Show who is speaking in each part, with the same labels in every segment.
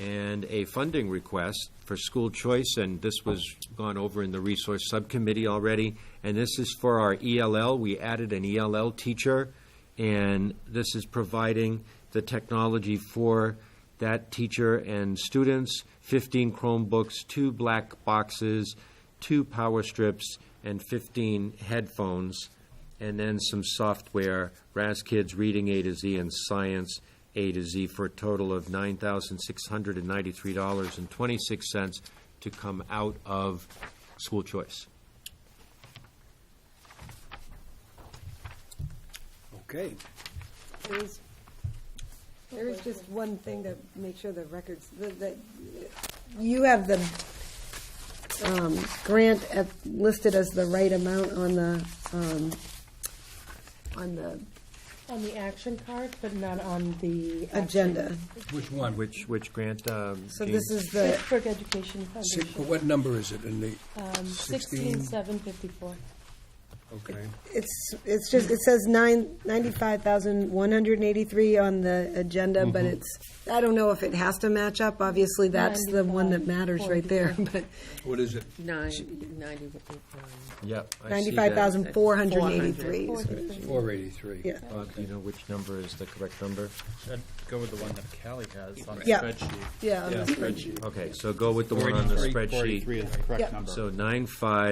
Speaker 1: and a funding request for school choice, and this was gone over in the resource subcommittee already. And this is for our ELL. We added an ELL teacher, and this is providing the technology for that teacher and students, 15 Chromebooks, two black boxes, two power strips, and 15 headphones, and then some software, RAS Kids Reading A to Z and Science A to Z, for a total of $9,693.26 to come out of school choice.
Speaker 2: Okay.
Speaker 3: There is, there is just one thing to make sure the records, that, that, you have the, um, grant at, listed as the right amount on the, um, on the
Speaker 4: On the action card, but not on the. action.
Speaker 3: agenda.
Speaker 2: Which one?
Speaker 1: Which, which grant? um,
Speaker 3: So
Speaker 1: Jean?
Speaker 3: this is the,
Speaker 4: Pittsburgh Education
Speaker 2: Six-
Speaker 4: Foundation,
Speaker 2: What number is it in the?
Speaker 4: um, sixteen, seven fifty-four.
Speaker 2: Okay.
Speaker 3: it's, it's just, it says nine, ninety-five thousand, one hundred and eighty-three on the agenda, but
Speaker 1: Mm-hmm.
Speaker 3: it's, I don't know if it has to match up, obviously, that's the one that matters right there, but
Speaker 2: What is it?
Speaker 5: Nine, ninety,
Speaker 1: Yep. I see that.
Speaker 3: ninety-five thousand, four hundred and eighty-three.
Speaker 2: Four eighty-three.
Speaker 3: Yeah.
Speaker 1: Bob, Uh, do you know which number is the correct number?
Speaker 6: I'd go with the one that Callie has on the
Speaker 3: Yeah.
Speaker 6: spreadsheet.
Speaker 3: Yeah, on the
Speaker 6: spreadsheet.
Speaker 1: Okay, so go with the one on the
Speaker 6: 483,
Speaker 1: spreadsheet.
Speaker 6: 483 is the
Speaker 3: Yeah.
Speaker 6: correct number.
Speaker 1: So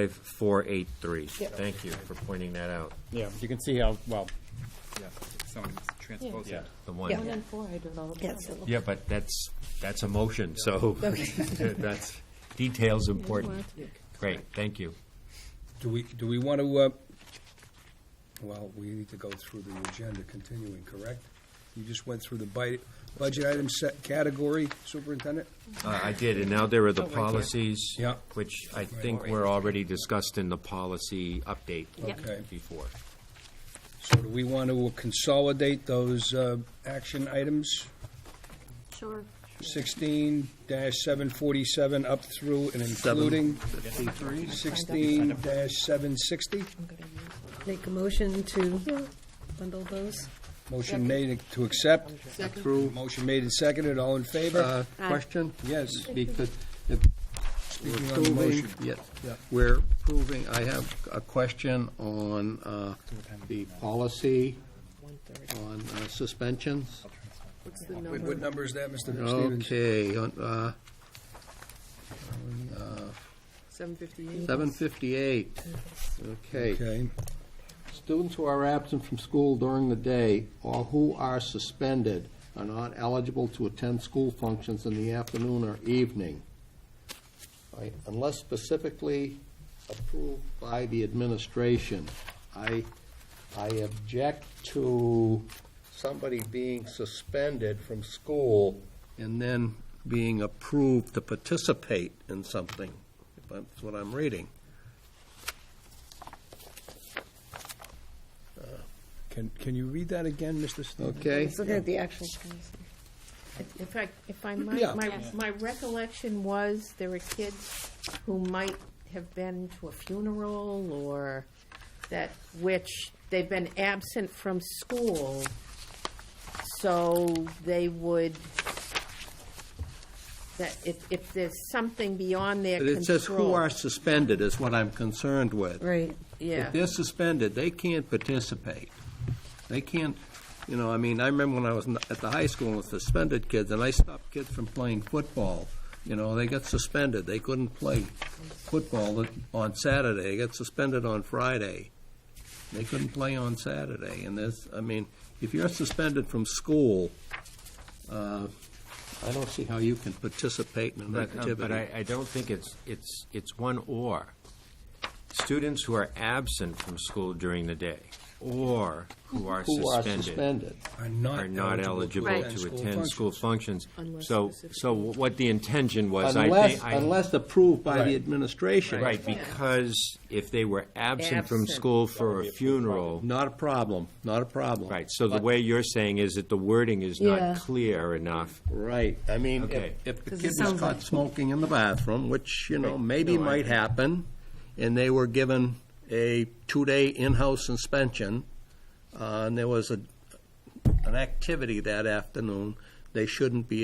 Speaker 1: 95483. Thank you for pointing that out.
Speaker 6: Yeah, you can see how, well,
Speaker 7: Yeah, someone transposed
Speaker 6: yeah.
Speaker 7: it.
Speaker 1: The
Speaker 4: One
Speaker 1: one.
Speaker 4: and four, I don't know.
Speaker 3: Yes.
Speaker 1: Yeah, but that's, that's a motion, so that's, detail's important. Great, thank you.
Speaker 2: Do we, do we want to, uh, well, we need to go through the agenda continuing, correct? You just went through the bi- budget item set category, superintendent?
Speaker 1: Uh, I did, and now there are the policies,
Speaker 2: Yeah.
Speaker 1: which I think were already discussed in the policy update
Speaker 2: Okay.
Speaker 1: before.
Speaker 2: So do we want to consolidate those uh, action items?
Speaker 5: Sure.
Speaker 2: Sixteen seven forty-seven up through and including sixteen seven sixty?
Speaker 3: Make a motion to bundle those?
Speaker 2: Motion made to accept.
Speaker 5: Second.
Speaker 2: Through. Uh, Motion made and seconded, all in favor?
Speaker 5: Aye.
Speaker 8: Uh, Question?
Speaker 2: Yes.
Speaker 8: Because if
Speaker 2: Speaking on the
Speaker 8: approving,
Speaker 2: motion.
Speaker 8: yes,
Speaker 2: Yeah.
Speaker 8: we're approving, I have a question on uh, the policy on uh, suspensions.
Speaker 5: What's the
Speaker 2: Wait, What number is that, Mr. Stevens?
Speaker 8: Okay, on, uh,
Speaker 5: Seven fifty-eight.
Speaker 8: 758. Okay.
Speaker 2: Okay,
Speaker 8: Students who are absent from school during the day or who are suspended are not eligible to attend school functions in the afternoon or evening, right, unless specifically approved by the administration. I, I object to somebody being suspended from school and then being approved to participate in something. That's what I'm reading.
Speaker 2: can, can you read that again, Mr. Stevens?
Speaker 8: Okay?
Speaker 3: Looking at the actual
Speaker 9: In fact, if I
Speaker 2: Yeah.
Speaker 9: might, my, my recollection was there were kids who might have been to a funeral or that, which they've been absent from school, so they would, that if, if there's something beyond their
Speaker 8: But
Speaker 9: control.
Speaker 8: it says who are suspended is what I'm concerned with.
Speaker 3: Right.
Speaker 9: Yeah.
Speaker 8: If they're suspended, they can't participate. They can't, you know, I mean, I remember when I was in- at the high school with suspended kids, and I stopped kids from playing football. You know, they got suspended. They couldn't play football on Saturday. They got suspended on Friday. They couldn't play on Saturday. And there's, I mean, if you're suspended from school, uh, I don't see how you can participate in an
Speaker 1: But, uh,
Speaker 8: activity.
Speaker 1: but I, I don't think it's, it's, it's one or. Students who are absent from school during the day or who are
Speaker 8: Who are
Speaker 1: suspended
Speaker 8: suspended.
Speaker 2: Are not
Speaker 1: are not eligible to attend school
Speaker 2: functions.
Speaker 1: functions.
Speaker 9: Unless
Speaker 1: So,
Speaker 9: specific-
Speaker 1: so what the intention was, I
Speaker 8: Unless,
Speaker 1: think. I-
Speaker 8: unless approved by
Speaker 1: Right.
Speaker 8: the administration.
Speaker 1: Right, because if they were absent from
Speaker 9: Absent.
Speaker 1: school for a funeral,
Speaker 8: Not a problem, not a problem.
Speaker 1: right, so the way you're saying is that the wording is not
Speaker 3: Yeah.
Speaker 1: clear enough.
Speaker 8: Right, I mean, if-
Speaker 1: Okay.
Speaker 8: if the
Speaker 3: 'Cause it
Speaker 8: kid was
Speaker 3: sounds
Speaker 8: caught
Speaker 3: like-
Speaker 8: smoking in the bathroom, which, you know,
Speaker 1: Right.
Speaker 8: maybe
Speaker 1: No, I-
Speaker 8: might happen, and they were given a two-day in-house suspension, uh, and there was a, an activity that afternoon, they shouldn't be